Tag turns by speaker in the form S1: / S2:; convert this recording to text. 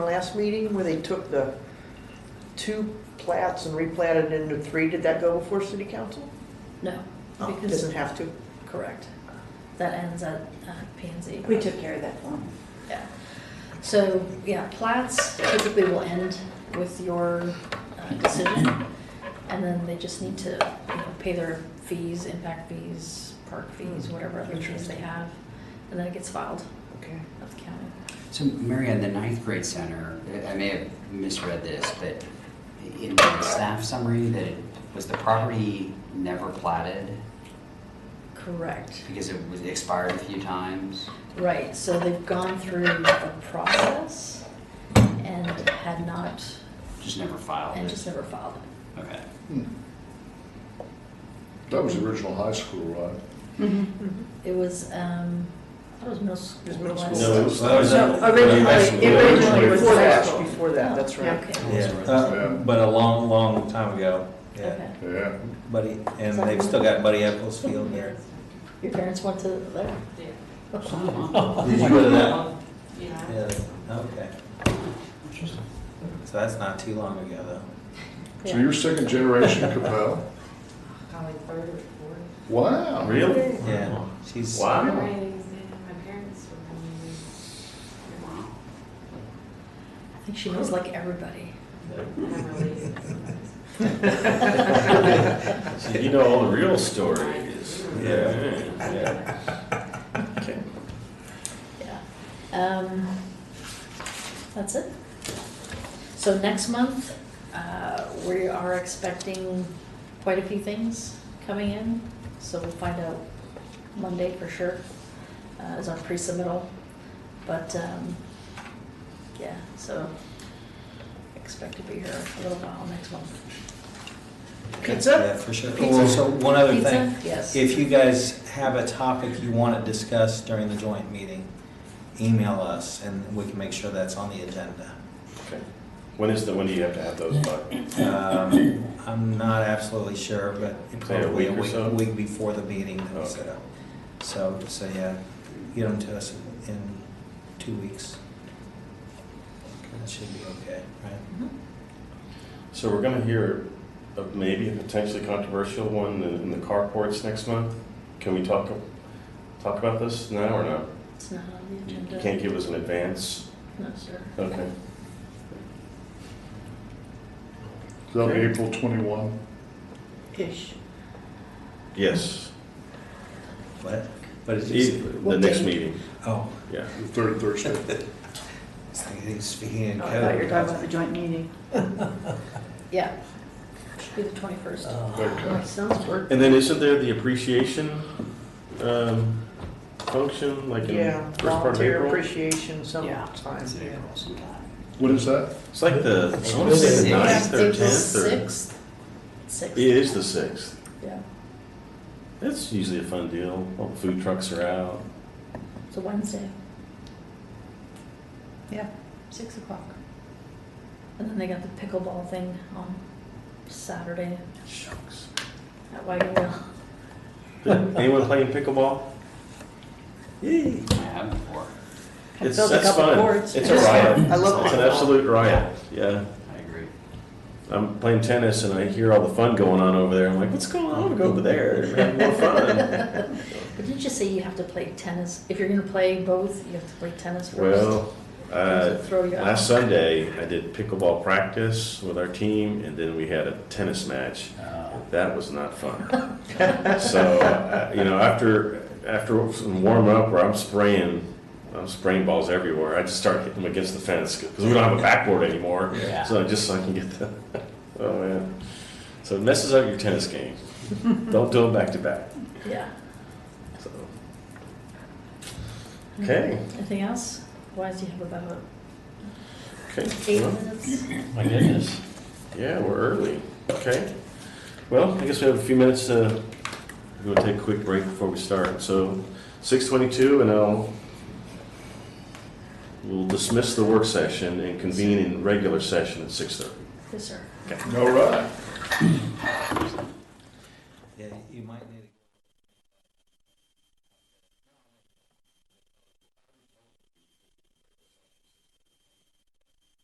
S1: last meeting where they took the two plats and replatted into three? Did that go before city council?
S2: No,
S1: Oh,
S2: because,
S1: doesn't have to.
S2: correct. That ends at uh, P and Z.
S3: We took care of that for him.
S2: Yeah. So, yeah, plats typically will end with your uh, decision. And then they just need to, you know, pay their fees, impact fees, park fees, whatever other fees they have. And then it gets filed
S1: Okay.
S2: at the county.
S4: So Marianne, the ninth grade center, I may have misread this, but in the staff summary, that it was the property never platted
S2: Correct.
S4: because it was expired a few times?
S2: Right, so they've gone through the process and had not,
S4: Just never filed
S2: and
S4: it?
S2: just never filed it.
S4: Okay.
S5: Hmm. That was the original high school, right?
S1: Mm-hmm.
S2: It was, um, I thought it was middle school.
S1: It was middle
S2: wasn't
S1: school.
S6: No, it was- that was-
S1: No,
S6: that was
S1: originally,
S6: actually-
S1: originally
S6: Yeah.
S1: before that, before that, that's
S2: Yeah,
S1: right.
S2: Oh, Okay,
S6: Yeah, uh, but a long, long time ago,
S2: okay.
S6: yeah.
S5: Yeah.
S6: Buddy, and they've still got Buddy Eccles Field there.
S2: Your parents went to there?
S6: Did you go to that one? Yeah, okay. So that's not too long ago, though.
S5: So you're second generation Capel?
S7: Probably third or fourth.
S5: Wow.
S6: Really? Yeah, she's.
S5: Wow.
S7: My ratings, yeah, my parents were from
S2: I think she knows like everybody.
S7: Never leaves.
S8: So you know all the real stories.
S6: Yeah.
S8: Yeah.
S2: Yeah. Um, that's it. So next month, uh, we are expecting quite a few things coming in, so we'll find out Monday for sure, uh, is our pre-submittal. But, um, yeah, so expect to be here a little while next month.
S6: Yeah,
S1: Pizza?
S6: for sure.
S1: Pizza?
S6: Oh, so one other
S2: Pizza?
S6: thing.
S2: Yes.
S6: If you guys have a topic you want to discuss during the joint meeting, email us and we can make sure that's on the agenda.
S8: Okay. When is the, when do you have to have those by?
S6: Um, I'm not absolutely sure, but
S8: Say a
S6: probably a
S8: week or
S6: week,
S8: so?
S6: week before the meeting that we set
S8: Okay.
S6: up. So, so yeah, get them to us in two weeks. That should be okay, right?
S2: Mhm.
S8: So we're gonna hear of maybe a potentially controversial one in in the carports next month? Can we talk, talk about this now or not?
S2: It's not on the
S8: You
S2: agenda.
S8: you can't give us an advance?
S2: No, sir.
S8: Okay.
S5: That'll be April 21.
S1: Ish.
S8: Yes,
S6: What? What did you say?
S8: E, the next meeting,
S6: Oh,
S8: yeah.
S5: The third Thursday.
S6: I was thinking he's speaking in
S3: Oh, I thought you were
S6: code.
S3: talking about the joint meeting.
S2: Yeah. Should be the twenty-first.
S5: Okay.
S2: My son's birthday.
S8: And then isn't there the appreciation um, function, like
S1: Yeah,
S8: in first part of
S1: volunteer
S8: April?
S1: appreciation
S4: Yeah.
S1: sometime.
S4: It's in
S1: yeah.
S4: April sometime.
S5: What is that?
S8: It's like the, I wanna say the
S4: Sixth.
S8: ninth or
S2: April
S8: tenth or.
S2: Sixth. Sixth,
S8: It is the sixth.
S2: yeah.
S8: That's usually a fun deal. All the food trucks are out.
S2: It's a Wednesday. Yeah, six o'clock. And then they got the pickleball thing on Saturday
S8: Shucks.
S2: at Wagon Wheel.
S8: Did anyone playing pickleball? Yay!
S4: I have before.
S8: It's
S2: built a
S8: that's
S2: couple
S8: fun.
S2: courts.
S8: It's a riot.
S1: I love
S8: It's an
S1: pickleball.
S8: absolute riot. Yeah.
S4: I agree.
S8: I'm playing tennis and I hear all the fun going on over there. I'm like, what's going on? I want to go over there and have more fun.
S2: But didn't you say you have to play tennis? If you're gonna play both, you have to play tennis first?
S8: Well,
S2: Does
S8: uh,
S2: it throw you out?
S8: last Sunday I did pickleball practice with our team, and then we had a tennis match.
S4: Uh,
S8: That was not fun. so uh, you know, after after some warm up where I'm spraying, I'm spraying balls everywhere. I just start hitting them against the fence because we don't have a backboard anymore.
S4: Yeah.
S8: So just so I can get the oh man. So it messes up your tennis game. don't do them back to back.
S2: Yeah.
S8: So okay,
S2: Anything else? Why do you have about
S8: okay.
S2: eight
S8: Well,
S2: minutes?
S8: My goodness. Yeah, we're early. Okay. Well, I guess we have a few minutes to, we're gonna take a quick break before we start. So six twenty-two and I'll, we'll dismiss the work session and convene in regular session at six thirty.
S2: Yes, sir.
S5: All right.
S6: Yeah,